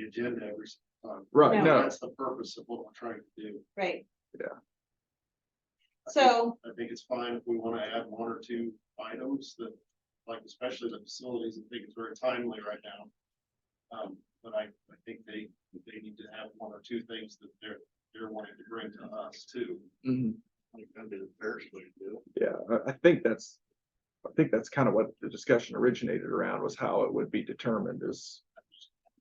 agenda every time. Right, No. no, That's the purpose of what we're trying to do. right? Yeah. So, I think it's fine if we want to add one or two items that, like especially the facilities, I think it's very timely right now. Um, but I, I think they, they need to have one or two things that they're, they're wanting to bring to us too. mhm, I think that'd be the fairest way to do yeah, I, I think that's. I think that's kind of what the discussion originated around was how it would be determined is.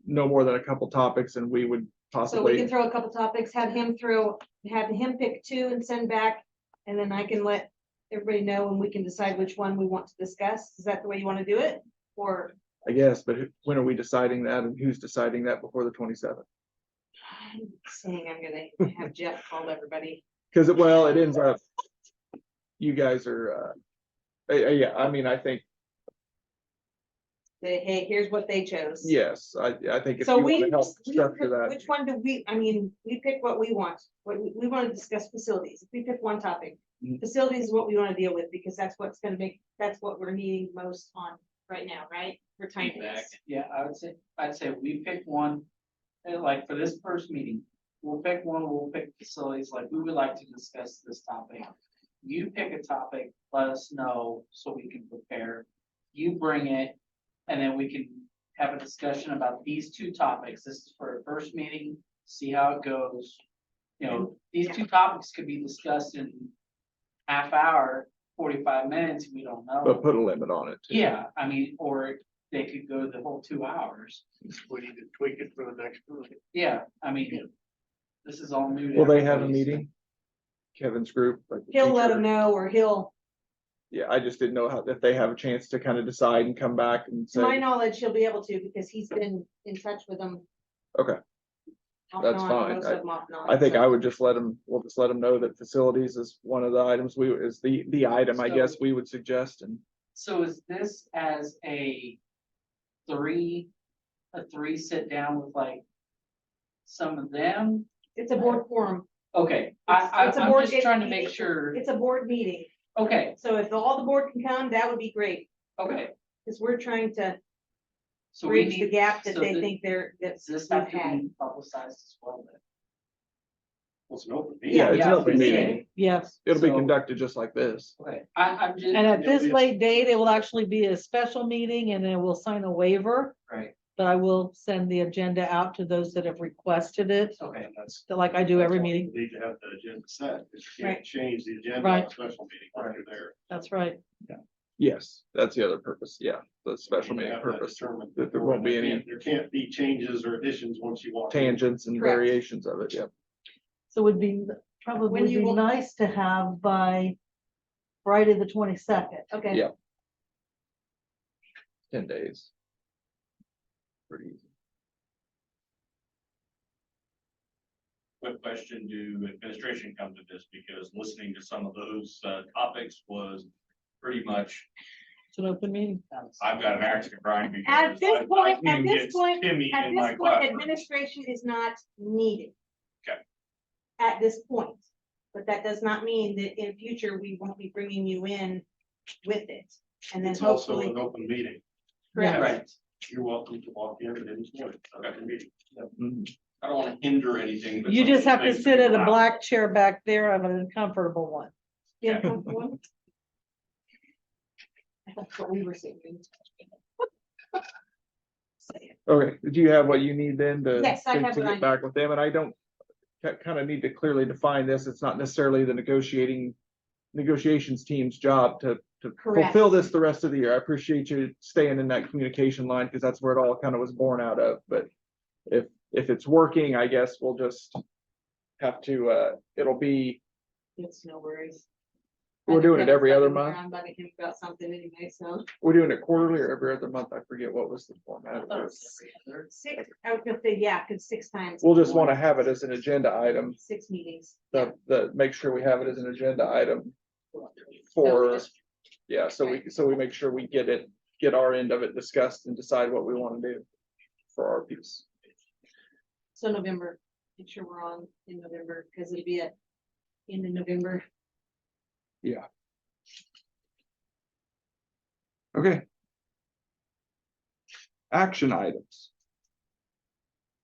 No more than a couple topics and we would so we possibly, can throw a couple topics, have him through, have him pick two and send back. And then I can let everybody know and we can decide which one we want to discuss. Is that the way you want to do it? Or I guess, but who- when are we deciding that and who's deciding that before the twenty seventh? I'm saying I'm gonna have Jeff call everybody. Cause it, well, it ends up. You guys are, uh, eh, eh, yeah, I mean, I think, Say, hey, here's what they chose. yes, I, I think if So you we, wanna help we structure pick- that, which one do we, I mean, we pick what we want, what we, we wanna discuss facilities, if we pick one topic. Mhm. Facilities is what we wanna deal with, because that's what's gonna make, that's what we're needing most on right now, right? For time. Feedback. Yeah, I would say, I'd say we pick one, and like for this first meeting, we'll pick one, we'll pick facilities, like we would like to discuss this topic. You pick a topic, let us know so we can prepare. You bring it, and then we can have a discussion about these two topics. This is for a first meeting, see how it goes. You know, these two topics could be discussed in half hour, forty-five minutes, we don't know. but put a limit on it. too. Yeah, I mean, or they could go the whole two hours. it. We need to tweak it for the next meeting. Yeah, I mean, this is all new. to Will they have a everybody, so- meeting? Kevin's group? like the He'll let teacher- them know, or he'll, Yeah, I just didn't know how, if they have a chance to kind of decide and come back and to my say, knowledge, he'll be able to, because he's been in touch with them. Okay. Off and That's on, fine. most I- of them off and on, I think so. I would just let them, we'll just let them know that facilities is one of the items we, is the, the item, I guess, So- we would suggest and. So is this as a three, a three sit down with like some of them? It's a board forum, Okay, I, It's- I, it's a I'm board just trying to meeting. make sure, it's a board meeting, okay, so if all the board can come, that would be great, okay. because we're trying to So we bridge the need, gap that so they thi- think they're, that's. does this we've have to had. be publicized as well then? Well, it's an open meeting. Yeah, it's yeah, an it's open gonna be- meeting. Yes, It'll be So- conducted just like this. Okay, I, I'm just, and at this Yeah. late date, it will actually be a special meeting and then we'll sign a waiver, right, but I will send the agenda out to those that have requested it, okay, And that's. so like I do that's every why we meeting. Need to have the agenda set, because you Right. can't change the agenda on a Right. special meeting when you're there. That's right. Yes, that's the other purpose. Yeah, the special You meeting have that purpose, determined that there won't be before, and any- There can't be changes or additions once you walk. in. tangents and Correct. variations of it. Yeah. So it would be, probably When you be will- nice to have by Friday, the twenty-second. Okay. Yeah. Ten days. Pretty easy. Quick question, do administration come to this? Because listening to some of those uh, topics was pretty much, It's an open meeting. that's- I've got an action, Brian. because At this I- I point- at can't this get point- Timmy At in my this point, classroom. administration is not needed. Okay. At this point, but that does not mean that in future, we won't be bringing you in with it, and then It's also an hopefully. open meeting. Correct. Right, You're welcome to walk in at any point. It's an open meeting. Mhm. I don't want to hinder anything. but You just have to things sit at a allow. black chair back there of an uncomfortable one. Yeah, comfortable. I thought what we were saying. Okay, do you have what you need then to? Yes, I to- have to what I get need. Back with them, and I don't, kind of need to clearly define this, it's not necessarily the negotiating, negotiations team's job to, to Correct. fulfill this the rest of the year, I appreciate you staying in that communication line, because that's where it all kind of was born out of, but if, if it's working, I guess we'll just have to, uh, it'll be, It's no worries. We're doing it every other I'm month? around bugging him About something anyway, so. we're doing it quarterly or every other month, I forget what was the format. I thought it Uh, was every other. Six, I was gonna say, yeah, cause six times. We'll just want to have it as an agenda item, Six meetings. the, the, make sure we have it as an agenda item So for just- Yeah, so we, so we make sure we get it, get our end of it discussed and decide what we wanna do for our piece. So November, make sure we're on in November, because it'll be at end of November. Okay. Action items.